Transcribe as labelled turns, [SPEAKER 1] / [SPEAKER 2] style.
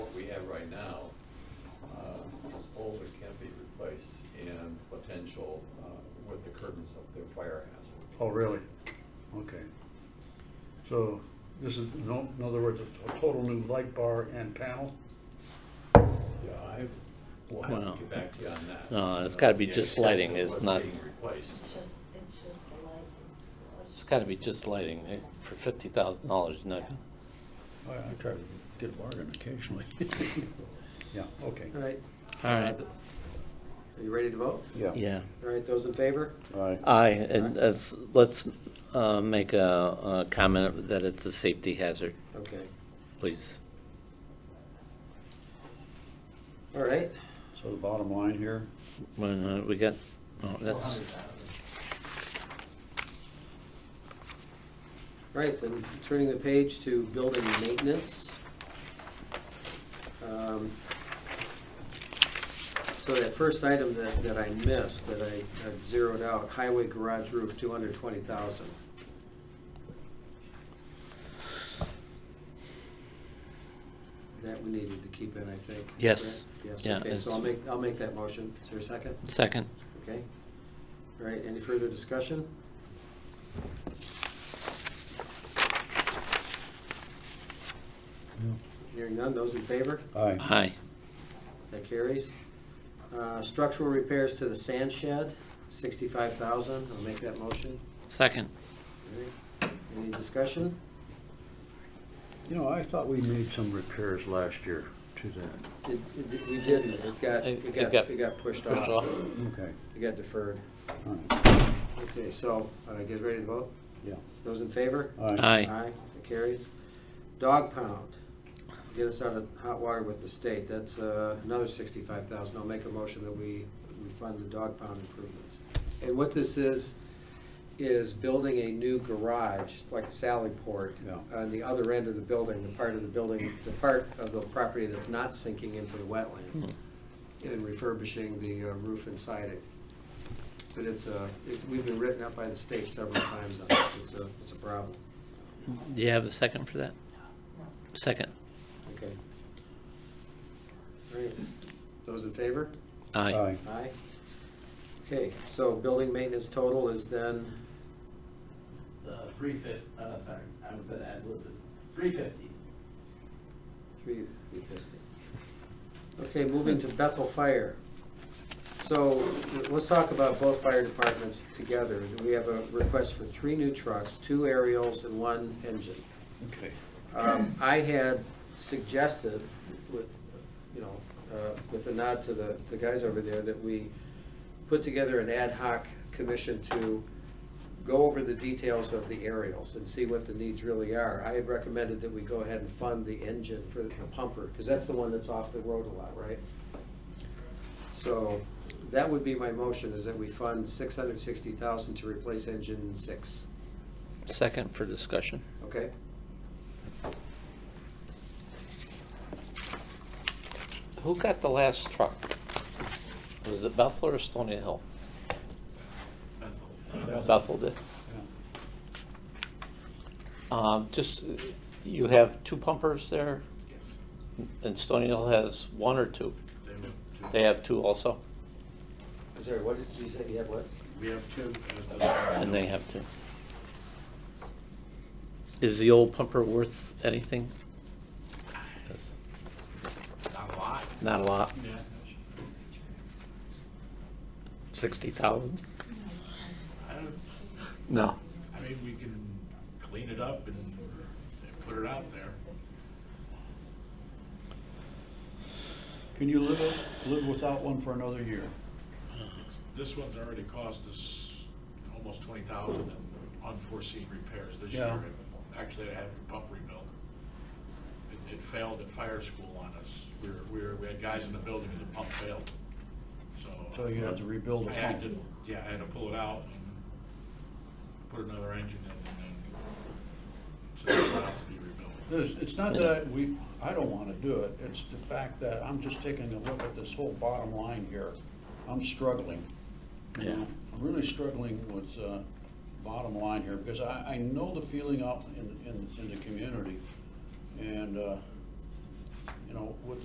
[SPEAKER 1] uh, residential uh, with the curtains of the fire hazard.
[SPEAKER 2] Oh, really? Okay. So this is, no, in other words, it's a total new light bar and panel?
[SPEAKER 1] Yeah, I, we'll have
[SPEAKER 3] Wow.
[SPEAKER 1] to get back to you on that.
[SPEAKER 3] No, it's gotta be
[SPEAKER 1] The
[SPEAKER 3] just
[SPEAKER 1] extent
[SPEAKER 3] lighting,
[SPEAKER 1] of
[SPEAKER 3] it's
[SPEAKER 1] what's
[SPEAKER 3] not-
[SPEAKER 1] being replaced.
[SPEAKER 4] It's just, it's just the light. It's-
[SPEAKER 3] It's gotta be just lighting, eh, for fifty thousand dollars, you're not gonna.
[SPEAKER 2] I Oh, I try to get a bargain occasionally. Yeah, okay.
[SPEAKER 5] All right.
[SPEAKER 3] All right.
[SPEAKER 5] Are you ready to vote?
[SPEAKER 2] Yeah.
[SPEAKER 3] Yeah, Uh,
[SPEAKER 5] All right, those in favor?
[SPEAKER 2] All right.
[SPEAKER 3] aye, and as, let's, uh, make a, a comment that it's a safety hazard,
[SPEAKER 5] Okay.
[SPEAKER 3] please.
[SPEAKER 5] All right.
[SPEAKER 2] So the bottom line here,
[SPEAKER 3] When, uh, we got, oh, that's,
[SPEAKER 5] All right, then turning the page to building maintenance. Um, So that first item that, that I missed, that I I've zeroed out, highway garage roof, two hundred twenty thousand. That we needed to keep in, I think.
[SPEAKER 3] Yes.
[SPEAKER 5] Yes,
[SPEAKER 3] Yeah,
[SPEAKER 5] okay, so
[SPEAKER 3] it's-
[SPEAKER 5] I'll make, I'll make that motion. Is there a second?
[SPEAKER 3] second,
[SPEAKER 5] Okay. All right, any further discussion? Hearing none, those in favor?
[SPEAKER 2] aye.
[SPEAKER 3] aye,
[SPEAKER 5] That carries. Uh, Structural repairs to the sand shed, sixty-five thousand, I'll make that motion.
[SPEAKER 3] second,
[SPEAKER 5] All right. Any discussion?
[SPEAKER 2] You know, I thought we made some repairs last year to that.
[SPEAKER 5] It- it- We didn't, it got,
[SPEAKER 3] It-
[SPEAKER 5] it
[SPEAKER 3] it
[SPEAKER 5] got,
[SPEAKER 3] got
[SPEAKER 5] it got pushed
[SPEAKER 3] pushed
[SPEAKER 5] off.
[SPEAKER 3] off.
[SPEAKER 2] Okay,
[SPEAKER 5] It got deferred.
[SPEAKER 2] all right,
[SPEAKER 5] Okay, so, uh, get ready to vote.
[SPEAKER 2] yeah.
[SPEAKER 5] Those in favor?
[SPEAKER 2] All right.
[SPEAKER 3] aye,
[SPEAKER 5] Aye, that carries. Dog pound, get us out of hot water with the state, that's uh, another sixty-five thousand, I'll make a motion that we, we fund the dog pound improvements. And what this is, is building a new garage, like a sally port,
[SPEAKER 2] Yeah.
[SPEAKER 5] on the other end of the building, the part of the building, the part of the property that's not sinking into the wetlands, and refurbishing the uh, roof inside it. But it's a, it- we've been written up by the state several times on this, it's a, it's a problem.
[SPEAKER 3] do you have a second for that? Second,
[SPEAKER 5] Okay. All right, those in favor?
[SPEAKER 3] aye,
[SPEAKER 2] Aye,
[SPEAKER 5] Aye. Okay, so building maintenance total is then,
[SPEAKER 6] The three fifty, uh, sorry, I was said as listed, three fifty.
[SPEAKER 5] Three, three fifty. Okay, moving to Bethel Fire. So let's talk about both fire departments together. We have a request for three new trucks, two aerials and one engine.
[SPEAKER 2] okay.
[SPEAKER 5] Um, I had suggested with, you know, uh, with a nod to the, the guys over there, that we put together an ad hoc commission to go over the details of the aerials and see what the needs really are. I had recommended that we go ahead and fund the engine for the pumper, because that's the one that's off the road a lot, right? So that would be my motion, is that we fund six hundred sixty thousand to replace engine six,
[SPEAKER 3] second for discussion,
[SPEAKER 5] okay?
[SPEAKER 3] Who got the last truck? Was it Bethel or Stony Hill? Bethel did. Um, just, uh, you have two pumpers there? And Stony Hill has one or two? They have two also,
[SPEAKER 5] I'm sorry, what did you say, you had what?
[SPEAKER 6] We have two.
[SPEAKER 3] and they have two. Is the old pumper worth anything? Yes.
[SPEAKER 6] Not a lot.
[SPEAKER 3] Not a lot,
[SPEAKER 6] Yeah.
[SPEAKER 3] sixty thousand?
[SPEAKER 6] I don't,
[SPEAKER 3] No.
[SPEAKER 6] I mean, we can clean it up and and put it out there.
[SPEAKER 2] Can you live, live without one for another year?
[SPEAKER 6] This one's already cost us almost twenty thousand in unforeseen repairs this
[SPEAKER 2] Yeah.
[SPEAKER 6] year. Actually, I had the pump rebuilt. It, it failed at fire school on us. We were, we were, we had guys in the building and the pump failed,
[SPEAKER 2] So you had to rebuild
[SPEAKER 6] I
[SPEAKER 2] a
[SPEAKER 6] had to,
[SPEAKER 2] pump.
[SPEAKER 6] yeah, I had to pull it out and put another engine in and then, so it allowed to be rebuilt.
[SPEAKER 2] There's, it's not that I- we, I don't want to do it, it's the fact that I'm just taking a look at this whole bottom line here. I'm struggling. you know?
[SPEAKER 3] Yeah.
[SPEAKER 2] I'm really struggling with uh, bottom line here, because I, I know the feeling out in, in, in the community. And, uh, you know, with